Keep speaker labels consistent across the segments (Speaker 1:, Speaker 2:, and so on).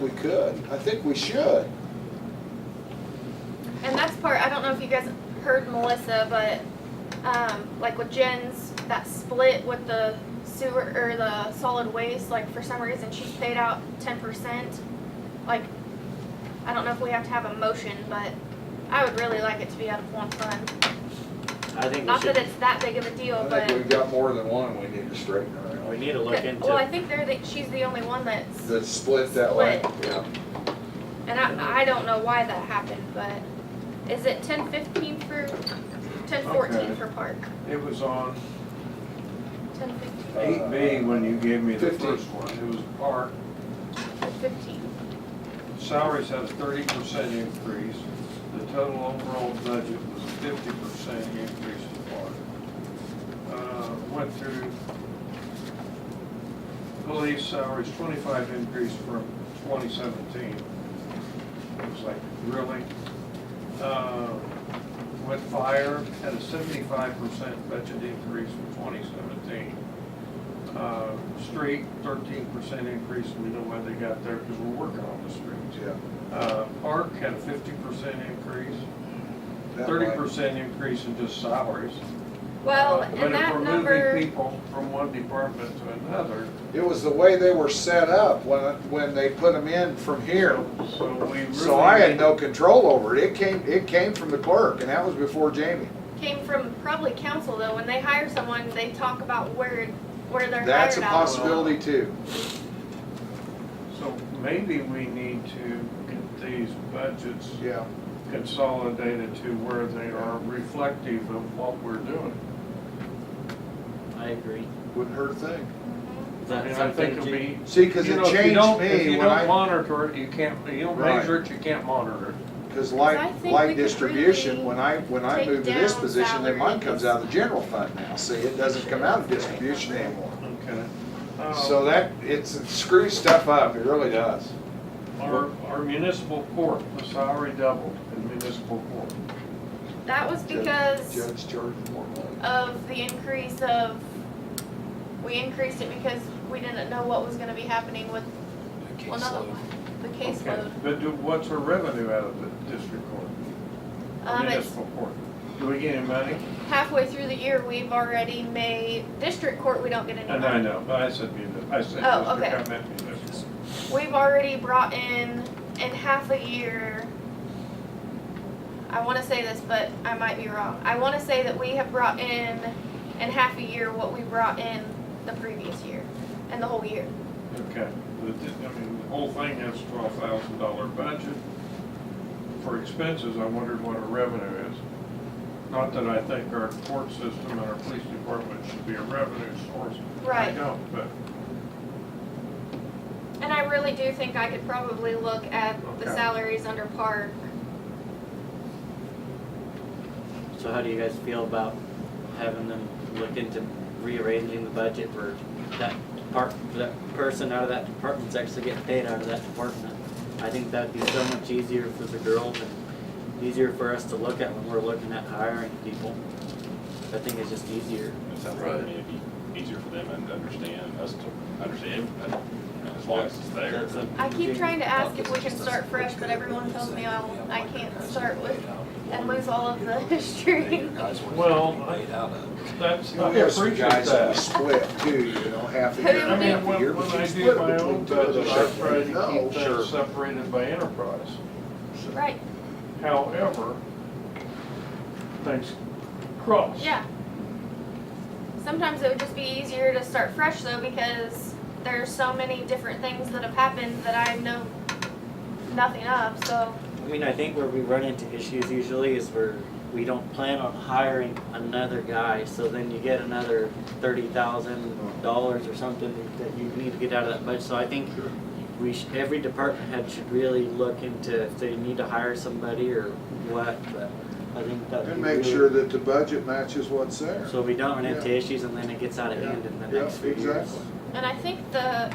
Speaker 1: we could. I think we should.
Speaker 2: And that's part, I don't know if you guys heard Melissa, but um, like with Jen's, that split with the sewer or the solid waste, like for some reason she paid out 10%. Like, I don't know if we have to have a motion, but I would really like it to be out of one fund.
Speaker 3: I think we
Speaker 2: Not that
Speaker 3: should,
Speaker 2: it's that big of a deal,
Speaker 1: I
Speaker 2: but.
Speaker 1: think we've got more than one we need to straighten out.
Speaker 3: we need to look
Speaker 2: well, I
Speaker 3: into,
Speaker 2: think they're the, she's the only one that's.
Speaker 1: The split that way,
Speaker 2: Split.
Speaker 1: yeah.
Speaker 2: And I, I don't know why that happened, but is it 1015 for. 1014
Speaker 4: Okay.
Speaker 2: for park?
Speaker 4: It was on
Speaker 2: 1015.
Speaker 4: eight B when you gave me the
Speaker 1: Fifteen.
Speaker 4: first one. It was park,
Speaker 2: 15.
Speaker 4: salaries had a thirty percent increase. The total overall budget was a fifty percent increase in park. Uh, went through police salaries, twenty-five increase from twenty seventeen. It was like, really? Uh, Went fire, had a seventy-five percent budget increase from twenty seventeen. Uh, Street, thirteen percent increase, we know why they got there, because we're working on the streets.
Speaker 1: Yeah.
Speaker 4: Uh, Park had a fifty percent increase,
Speaker 1: that
Speaker 4: thirty
Speaker 1: way.
Speaker 4: percent increase in just salaries.
Speaker 2: Well,
Speaker 4: Uh,
Speaker 2: and that
Speaker 4: But if we're moving
Speaker 2: number,
Speaker 4: people from one department to another,
Speaker 1: It was the way they were set up when, when they put them in from here.
Speaker 4: so we really.
Speaker 1: So I had
Speaker 4: need-
Speaker 1: no control over it. It came, it came from the clerk and that was before Jamie.
Speaker 2: came from probably council though, when they hire someone, they talk about where, where they're hired
Speaker 1: That's a
Speaker 2: out.
Speaker 1: possibility too.
Speaker 4: So maybe we need to get these budgets
Speaker 1: Yeah.
Speaker 4: consolidated to where they are reflective of what we're doing.
Speaker 3: I agree.
Speaker 1: Wouldn't hurt a thing.
Speaker 3: Is
Speaker 4: I
Speaker 3: that
Speaker 4: mean, I think it'll
Speaker 3: something you-
Speaker 4: be.
Speaker 1: See, cause
Speaker 4: you
Speaker 1: it
Speaker 4: know, if you
Speaker 1: changed
Speaker 4: don't- If
Speaker 1: me
Speaker 4: you
Speaker 1: when
Speaker 4: don't
Speaker 1: I,
Speaker 4: monitor it, you can't, you don't
Speaker 1: Right.
Speaker 4: measure it, you can't monitor it.
Speaker 1: cause
Speaker 2: I
Speaker 1: light,
Speaker 2: think we
Speaker 1: light
Speaker 2: could
Speaker 1: distribution,
Speaker 2: really
Speaker 1: when I, when I
Speaker 2: take
Speaker 1: moved to this
Speaker 2: down
Speaker 1: position, then mine comes
Speaker 2: salaries.
Speaker 1: out of the general fund now. See, it doesn't come out of distribution anymore.
Speaker 4: Okay. Um,
Speaker 1: So that, it's it screws stuff up. It really does.
Speaker 4: Our, our municipal court, the salary doubled in municipal court.
Speaker 2: That was because
Speaker 1: Judge charged more money.
Speaker 2: of the increase of, we increased it because we didn't know what was gonna be happening with, well, not the, the
Speaker 4: Okay.
Speaker 2: caseload.
Speaker 4: But do, what's our revenue out of the district court,
Speaker 2: Um, it's
Speaker 4: municipal court? Do we get any money?
Speaker 2: halfway through the year, we've already made, district court, we don't get any
Speaker 4: And
Speaker 2: money.
Speaker 4: I know, but I said municipal, I said
Speaker 2: Oh,
Speaker 4: district, I meant municipal.
Speaker 2: We've already brought in, in half a year, I wanna say this, but I might be wrong. I wanna say that we have brought in, in half a year, what we brought in the previous year, and the whole year.
Speaker 4: Okay, the, di- I mean, the whole thing has twelve thousand dollar budget. For expenses, I wondered what our revenue is. Not that I think our court system and our police department should be a revenue source. I
Speaker 2: Right.
Speaker 4: don't, but,
Speaker 2: And I really do think I could probably look at the
Speaker 4: Okay.
Speaker 2: salaries under park.
Speaker 3: So how do you guys feel about having them look into rearranging the budget for that part, for that person out of that department's actually getting paid out of that department? I think that'd be so much easier for the girls and easier for us to look at when we're looking at hiring people. I think it's just easier.
Speaker 5: It sounds like, I mean, it'd be easier for them and to understand, us to understand, but as long as it's there.
Speaker 3: That's a
Speaker 2: I keep
Speaker 3: big-
Speaker 2: trying to ask if we can start fresh, but everyone tells me I, I can't start with, and lose all of the history.
Speaker 4: Well,
Speaker 6: Well.
Speaker 4: that's,
Speaker 1: You know,
Speaker 4: I
Speaker 1: We have some
Speaker 4: appreciate
Speaker 1: guys that
Speaker 4: that.
Speaker 1: split too, you know, half a
Speaker 2: Who
Speaker 1: year.
Speaker 4: I
Speaker 1: half
Speaker 4: mean,
Speaker 1: a
Speaker 4: when,
Speaker 1: year,
Speaker 4: when
Speaker 1: but
Speaker 4: I
Speaker 1: you
Speaker 4: do
Speaker 1: split
Speaker 4: my
Speaker 1: between
Speaker 4: own
Speaker 1: two of
Speaker 4: budget, I
Speaker 1: us.
Speaker 4: try to
Speaker 1: No,
Speaker 4: keep
Speaker 1: sure.
Speaker 4: things separated by enterprise.
Speaker 2: Right,
Speaker 4: However, things cross.
Speaker 2: yeah. Sometimes it would just be easier to start fresh though, because there's so many different things that have happened that I know nothing of, so.
Speaker 3: I mean, I think where we run into issues usually is where we don't plan on hiring another guy, so then you get another thirty thousand dollars or something that you need to get out of that budget, so I think we should, every department head should really look into if they need to hire somebody or what, but I think that.
Speaker 1: And make sure that the budget matches what's there.
Speaker 3: So we don't run into
Speaker 1: Yeah.
Speaker 3: issues and then it gets out of hand in the
Speaker 1: Yeah,
Speaker 3: next few years.
Speaker 1: exactly.
Speaker 2: And I think the,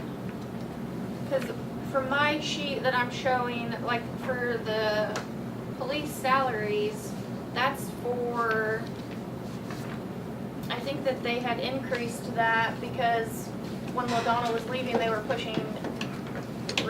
Speaker 2: because from my sheet that I'm showing, like for the police salaries, that's for, I think that they had increased that because when LaDonna was leaving, they were pushing